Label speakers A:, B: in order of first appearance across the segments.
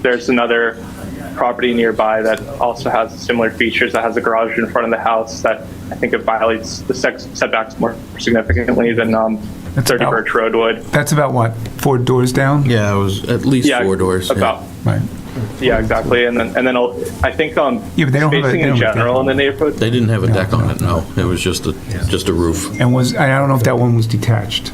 A: there's another property nearby that also has similar features that has a garage in front of the house that I think it violates the sex setbacks more significantly than um,
B: That's
A: 30
B: about-
A: Birch Road would.
B: That's about what, four doors down?
C: Yeah, it was at least
A: Yeah,
C: four doors. yeah.
A: About
B: Right.
A: yeah, exactly. And then and then I'll, I think um,
B: Yeah, but they don't have a-
A: spacing in
B: they don't have a
A: general in the neighborhood
C: They didn't have a deck on it, no. It was just a, just a roof.
B: And was, I don't know if that one was detached.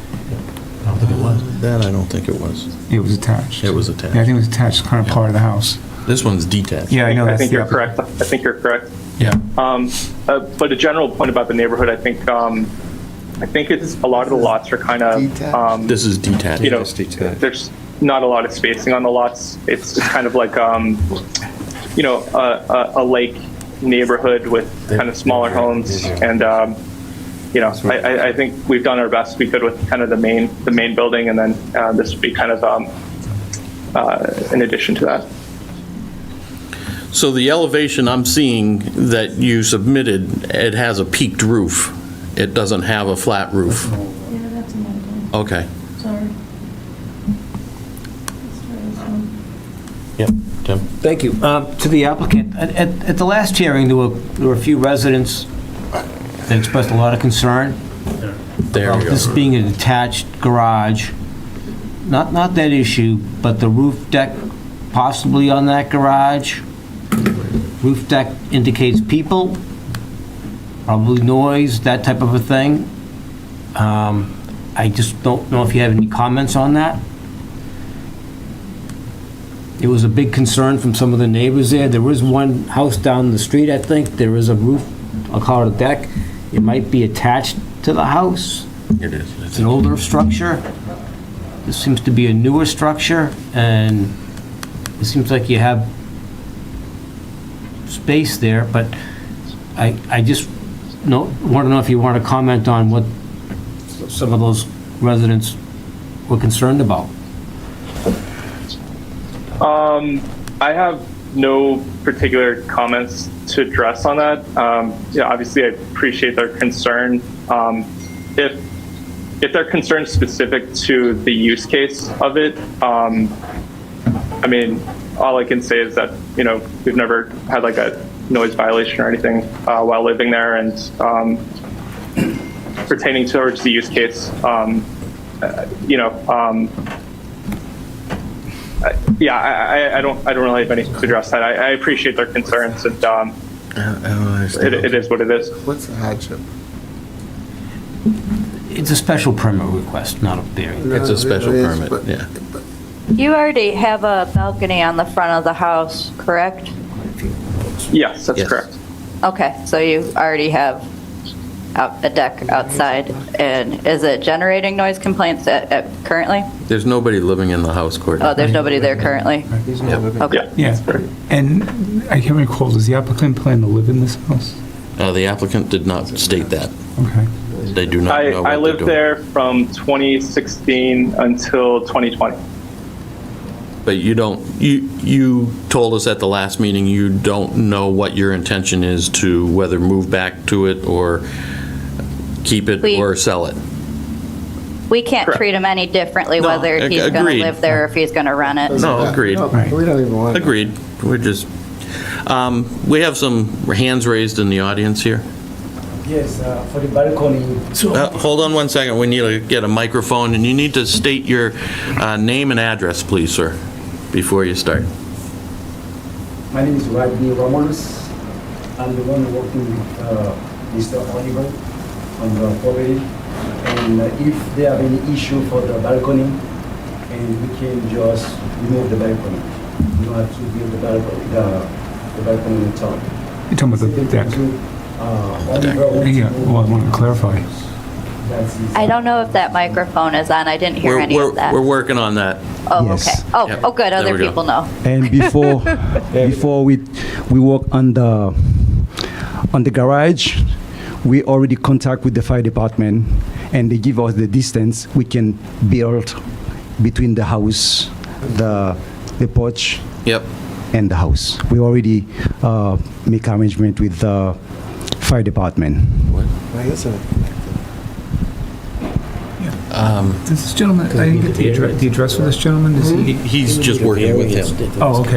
C: That I don't think it was.
B: It was attached.
C: It was
B: Yeah, I
C: attached.
B: think it was attached, kind of part of the house.
C: This one's detached.
B: Yeah, I know.
A: I
B: that's
A: think
B: the
A: you're
B: upper-
A: correct. I think you're correct.
B: Yeah.
A: Um, uh, but a general point about the neighborhood, I think, um, I think it's a lot of the lots are kind of, um,
C: This is detached.
A: you know,
D: Just detached.
A: there's not a lot of spacing on the lots. It's just kind of like, um, you know, a, a, a lake neighborhood with kind of smaller homes, and um, you know, I, I, I think we've done our best we could with kind of the main the main building, and then uh, this would be kind of um, uh, in addition to that.
C: So the elevation I'm seeing that you submitted, it has a peaked roof. It doesn't have a flat roof.
E: Yeah, that's another one,
C: Okay.
E: sorry. Let's try this one.
C: Yep. Tim?
F: Thank you. Um, To the applicant, at- at at the last hearing, there were there were a few residents that expressed a lot of concern
C: There
F: about
C: we
F: this
C: go.
F: being a detached garage. Not, not that issue, but the roof deck possibly on that garage. Roof deck indicates people, probably noise, that type of a thing. Um, I just don't know if you have any comments on that. It was a big concern from some of the neighbors there. There was one house down the street, I think. There is a roof, I'll call it a deck. It might be attached to the house.
C: It is.
F: It's an older structure. This seems to be a newer structure, and it seems like you have space there, but I, I just know, want to know if you want to comment on what some of those residents were concerned about.
A: I have no particular comments to address on that. Um, yeah, obviously, I appreciate their concern. Um, if if they're concerned specific to the use case of it, um, I mean, all I can say is that you know we've never had like a noise violation or anything uh, while living there, and um, pertaining towards the use case, um, uh, you know, um, yeah, I, I- I don't, I don't really have anything to address that. I, I appreciate their concerns, and um, it, it is what it is.
D: What's the hardship?
F: It's a special permit request, not a variance.
C: It's a special
D: It is,
C: permit,
D: but-
C: yeah.
D: but
G: You already have a balcony on the front of the house, correct?
A: Yes, that's
C: Yes.
A: correct.
G: Okay, so you already have out- a deck outside, and is it generating noise complaints at- at- currently?
C: There's nobody living in the house,
G: Oh,
C: Courtney.
G: there's nobody there currently?
D: He's not living.
G: Okay.
A: Yeah.
B: Yeah. And I can't recall, does the applicant plan to live in this house?
C: Uh, The applicant did not state that.
B: Okay.
C: They do not
A: I,
C: know what
A: I
C: they're
A: lived
C: doing.
A: there from 2016 until 2020.
C: But you don't, you, you told us at the last meeting, you don't know what your intention is to whether move back to it or keep it
G: We-
C: or sell it.
G: We can't
A: Correct.
G: treat him any differently,
C: No,
G: whether
C: ag-
G: he's going to
C: agreed.
G: live there or if he's going to run it.
C: No, agreed,
D: No,
B: Right.
D: We don't even want. to.
C: agreed. We're just, um, we have some hands raised in the audience here.
H: Yes, uh, for the balcony.
C: Uh, Hold on one second, we need to get a microphone, and you need to state your uh, name and address, please, sir, before you start.
H: My name is Rodney Ramos. I'm the one working with uh, Mr. Oliver on the property. And uh, if they have any issue for the balcony, and we can just remove the balcony. We don't have to build the balcony, the the balcony on top. uh,
B: You're talking about the deck. Yeah, well, I want to clarify.
G: I don't know if that microphone is on, I didn't hear
C: We're-
G: any
C: we're-
G: of that.
C: We're working on that.
G: Oh, okay.
H: Yes.
G: Oh,
C: Yep.
G: oh, good,
C: There
G: other
C: we go.
G: people know.
H: And before,
I: before we we work on the on the garage we already contact with the fire department and they give us the distance we can build between the house the the porch
C: Yep,
I: and the house we already uh, make arrangement with the fire department
D: Why isn't it?
B: Does this gentleman, I didn't get the address, the address for this gentleman, is he?
C: he's just working with him.
B: Oh, okay.